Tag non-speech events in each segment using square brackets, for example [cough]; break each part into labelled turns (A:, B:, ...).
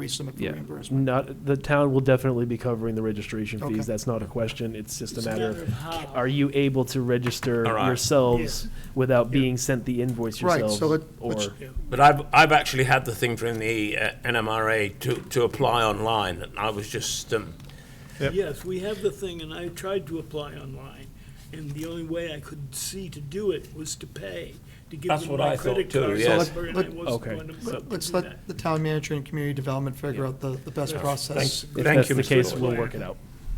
A: Raise them for
B: Yeah.
A: reimbursement.
C: Not, the town will definitely be covering the registration
A: Okay.
C: fees, that's not a question, it's just a
D: It's
C: matter of,
D: how.
C: are you able to register
B: All right.
C: yourselves without being sent the invoice
A: Right,
C: yourselves?
A: so it-
C: Or,
A: which-
B: But I've, I've actually had the thing from the uh, NMRA to, to apply online, and I was just, um,
D: Yes, we have the thing, and I tried to apply online, and the only way I could see to do it was to pay, to give
B: That's
D: them
B: what
D: my
B: I thought
D: credit
B: too,
D: card
B: yes.
D: number, and
A: Let-
D: I
A: let-
D: wasn't
C: Okay.
D: going to be able to
A: Let's
D: do that.
A: let the town manager and community development figure out the, the best
B: Yeah.
A: process.
C: if
B: Thank
C: that's
B: you,
C: the
B: Mr.
C: case, we'll
B: Lawyer.
C: work it out.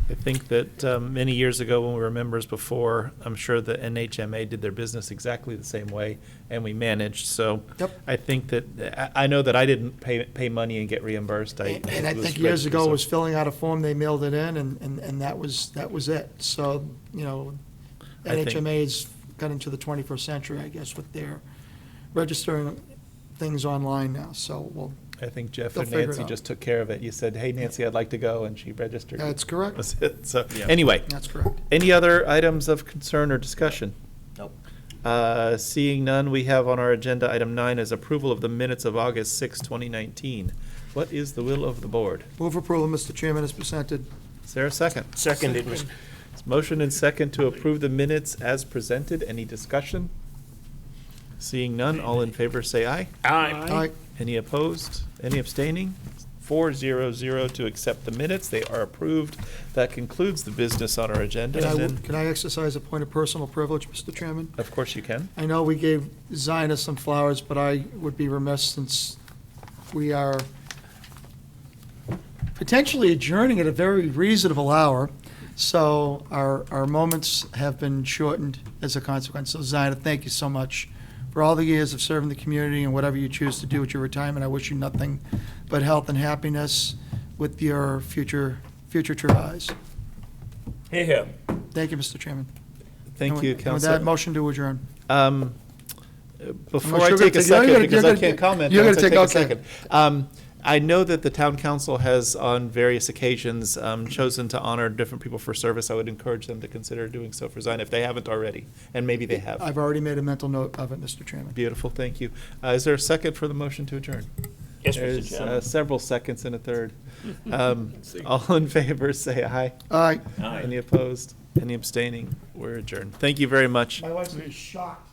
E: I think that um, many years ago, when we were members before, I'm sure the NHMA did their business exactly the same way, and we managed, so.
A: Yep.
E: I think that, I, I know that I didn't pay, pay money and get reimbursed. I
A: And and I
E: was
A: think years ago
E: registered, so-
A: was filling out a form, they mailed it in, and, and, and that was, that was it. So, you know,
E: I think-
A: NHMA's got into the twenty-first century, I guess, with their registering things online now, so, well,
E: I think Jeff
A: They'll
E: and
A: figure it
E: Nancy
A: out.
E: just took care of it. You said, hey, Nancy, I'd like to go, and she registered.
A: That's correct.
E: That's it. So,
C: Yeah.
E: anyway,
A: that's correct.
E: any other items of concern or discussion?
B: Nope.
E: Uh, Seeing none, we have on our agenda, item nine is approval of the minutes of August 6, 2019. What is the will of the board?
A: Move approval, Mr. Chairman, as presented.
E: Is there a second?
B: seconded, Mr.
E: It's Motion and second to approve the minutes as presented. Any discussion? Seeing none, all in favor say aye.
B: Aye.
A: Aye.
E: Any opposed? Any abstaining? Four zero zero to accept the minutes. They are approved. That concludes the business on our agenda.
A: Can I,
E: And then,
A: can I exercise a point of personal privilege, Mr. Chairman?
E: of course, you can.
A: I know we gave Zionists some flowers, but I would be remiss since we are potentially adjourning at a very reasonable hour. So our, our moments have been shortened as a consequence. So Zionist, thank you so much for all the years of serving the community and whatever you choose to do with your retirement. I wish you nothing but health and happiness with your future, future tries.
B: Here, here.
A: Thank you, Mr. Chairman. And
E: Thank
A: with-
E: you,
A: and With that,
E: Counselor.
A: motion to adjourn.
E: Um, uh, Before
A: Unless
E: I
A: you're gonna
E: take a
A: take- you're gonna-
E: second, because
A: you're
E: I
A: gonna-
E: can't comment.
A: you're
E: unless
A: gonna
E: I
A: take-
E: a
A: okay.
E: second. Um, I know that the town council has, on various occasions, um, chosen to honor different people for service. I would encourage them to consider doing so for Zion if they haven't already, and maybe they have.
A: I've already made a mental note of it, Mr. Chairman.
E: Beautiful, thank you. Uh, Is there a second for the motion to adjourn?
B: Yes, Mr.
E: There's uh,
B: Chairman.
E: several seconds and a third.
B: [laughs]
E: Um, All in favor, say aye.
A: All right.
B: Aye.
E: Any opposed? Any abstaining? We're adjourned. Thank you very much.
A: My wife's gonna be shocked.